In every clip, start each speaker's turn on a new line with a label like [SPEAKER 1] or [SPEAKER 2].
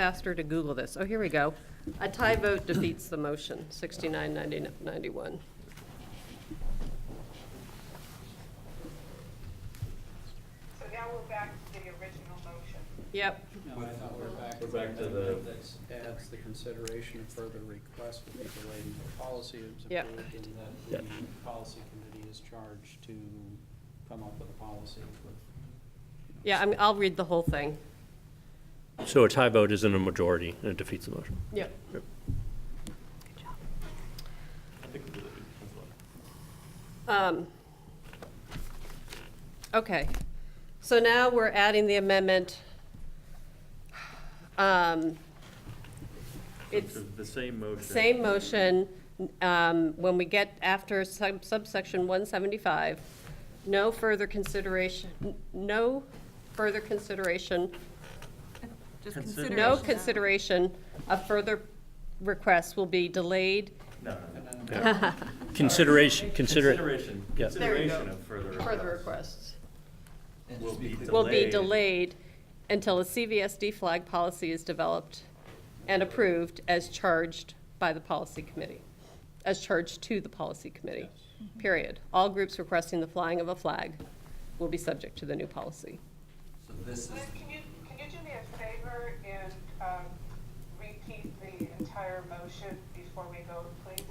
[SPEAKER 1] faster to Google this. Oh, here we go. A tie vote defeats the motion, 69, 90, 91.
[SPEAKER 2] So now we're back to the original motion.
[SPEAKER 1] Yep.
[SPEAKER 3] No, I thought we're back.
[SPEAKER 4] We're back to the-
[SPEAKER 3] Appendix Adds the consideration of further requests will be delayed until policy is
[SPEAKER 1] Yep.
[SPEAKER 3] approved and that the policy committee is charged to come up with a policy with. you know,
[SPEAKER 1] Yeah, I'm, I'll read the whole thing.
[SPEAKER 4] So a tie vote isn't a majority, and it defeats the motion.
[SPEAKER 1] Yep. Um, Okay, so now we're adding the amendment. Um, It's
[SPEAKER 5] So The same motion.
[SPEAKER 1] same motion, um, when we get after sub- subsection 175, no further consideration, n- no further consideration
[SPEAKER 6] Just
[SPEAKER 5] Consider-
[SPEAKER 6] consideration.
[SPEAKER 1] No
[SPEAKER 6] now.
[SPEAKER 1] consideration of further requests will be delayed
[SPEAKER 5] No, no, no.
[SPEAKER 4] Consideration, consider,
[SPEAKER 5] Consideration,
[SPEAKER 4] yeah.
[SPEAKER 5] consideration of further.
[SPEAKER 1] further requests,
[SPEAKER 5] Will be delayed.
[SPEAKER 1] will be delayed until a CVSD flag policy is developed and approved as charged by the policy committee, as charged to the policy committee, period. All groups requesting the flying of a flag will be subject to the new policy.
[SPEAKER 7] So this is,
[SPEAKER 2] Liz, can you, can you do me a favor and um, repeat the entire motion before we vote, please?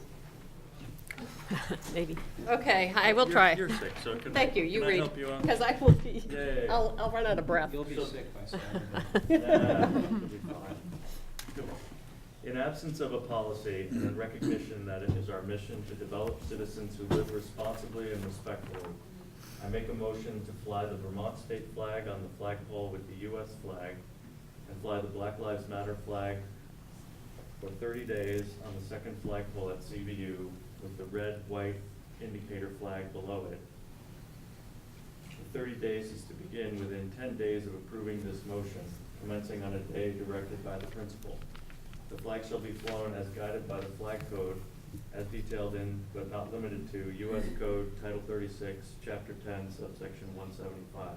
[SPEAKER 1] Maybe. Okay, I will try.
[SPEAKER 5] You're you're sick, so can I,
[SPEAKER 1] Thank you,
[SPEAKER 5] can
[SPEAKER 1] you
[SPEAKER 5] I
[SPEAKER 1] read,
[SPEAKER 5] help you out?
[SPEAKER 1] because I will be,
[SPEAKER 5] Yeah, yeah, yeah.
[SPEAKER 1] I'll, I'll run out of breath.
[SPEAKER 3] You'll be sick by Saturday.
[SPEAKER 5] In absence of a policy and in recognition that it is our mission to develop citizens who live responsibly and respectfully, I make a motion to fly the Vermont state flag on the flagpole with the US flag and fly the Black Lives Matter flag for thirty days on the second flagpole at CVU with the red, white indicator flag below it. The thirty days is to begin within ten days of approving this motion, commencing on a day directed by the principal. The flag shall be flown as guided by the flag code as detailed in, but not limited to, U.S. Code Title thirty-six, Chapter ten, subsection one seventy-five.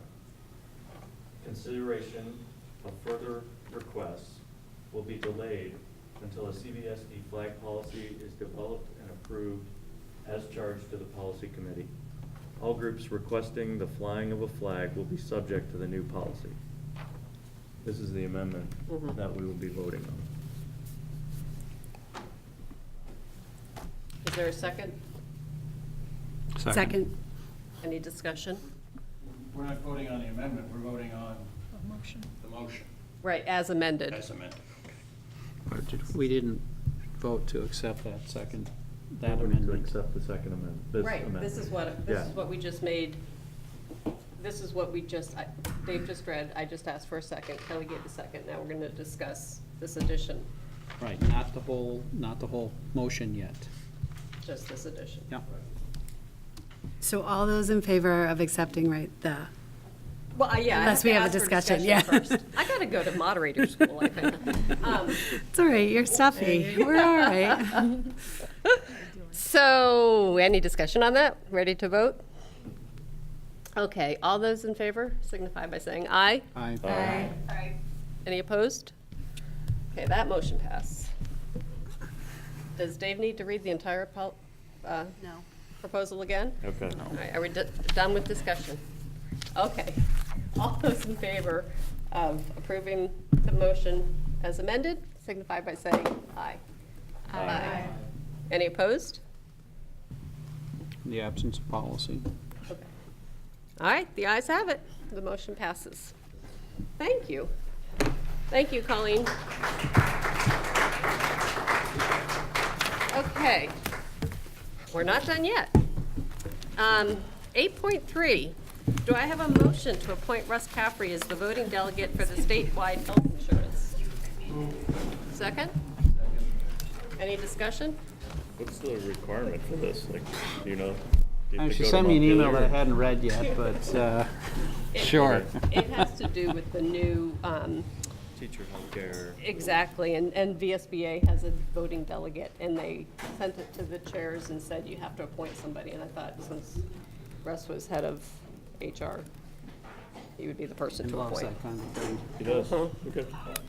[SPEAKER 5] Consideration of further requests will be delayed until a CVSD E flag policy is developed and approved as charged to the policy committee. All groups requesting the flying of a flag will be subject to the new policy. This is the amendment
[SPEAKER 1] Mhm.
[SPEAKER 5] that we will be voting on.
[SPEAKER 1] Is there a second?
[SPEAKER 6] Second.
[SPEAKER 1] Any discussion?
[SPEAKER 3] We're not voting on the amendment, we're voting on the motion
[SPEAKER 1] Right, as amended.
[SPEAKER 3] as amended.
[SPEAKER 8] We didn't vote to accept that second, that amendment.
[SPEAKER 5] accept the second amendment, this
[SPEAKER 1] Right, this is what, this is
[SPEAKER 5] Yeah.
[SPEAKER 1] what we just made, this is what we just, I- Dave just read, I just asked for a second, Kelly gave a second, now we're gonna discuss this addition,
[SPEAKER 8] Right, not the whole, not the whole motion yet.
[SPEAKER 1] just this addition.
[SPEAKER 8] Yeah.
[SPEAKER 6] So all those in favor of accepting, right, the,
[SPEAKER 1] Well, I- yeah. I
[SPEAKER 6] Unless we
[SPEAKER 1] to
[SPEAKER 6] have a
[SPEAKER 1] ask for
[SPEAKER 6] discussion, yeah.
[SPEAKER 1] first. I gotta go to moderator school, I think. Um,
[SPEAKER 6] it's all right, you're stuffy, we're all right.
[SPEAKER 1] So, any discussion on that? Ready to vote? Okay, all those in favor signify by saying aye.
[SPEAKER 8] I,
[SPEAKER 2] I,
[SPEAKER 1] Any opposed? Okay, that motion passed. Does Dave need to read the entire pol- uh,
[SPEAKER 6] No.
[SPEAKER 1] proposal again?
[SPEAKER 5] Okay.
[SPEAKER 1] All right, are we do- done with discussion? Okay. All those in favor of approving the motion as amended signify by saying aye. Aye. Any opposed?
[SPEAKER 8] the absence of policy.
[SPEAKER 1] Okay. All right, the ayes have it. The motion passes. Thank you. Thank you, Colleen. Okay, we're not done yet. Um, 8.3, do I have a motion to appoint Russ Caffrey as the voting delegate for the statewide health insurance? Second? Any discussion?
[SPEAKER 5] What's the requirement for this, like, do you know? Do you have to
[SPEAKER 8] She
[SPEAKER 5] go to
[SPEAKER 8] sent me an email that I
[SPEAKER 5] Montpelier?
[SPEAKER 8] hadn't read yet, but, uh, sure.
[SPEAKER 1] It has to do with the new um,
[SPEAKER 5] Teacher healthcare.
[SPEAKER 1] Exactly, and, and VSBA has a voting delegate, and they sent it to the chairs and said, you have to appoint somebody, and I thought, since Russ was head of HR, he would be the person to
[SPEAKER 8] Loves
[SPEAKER 1] appoint.
[SPEAKER 8] that kind of thing.
[SPEAKER 4] Uh-huh,
[SPEAKER 5] He does, okay.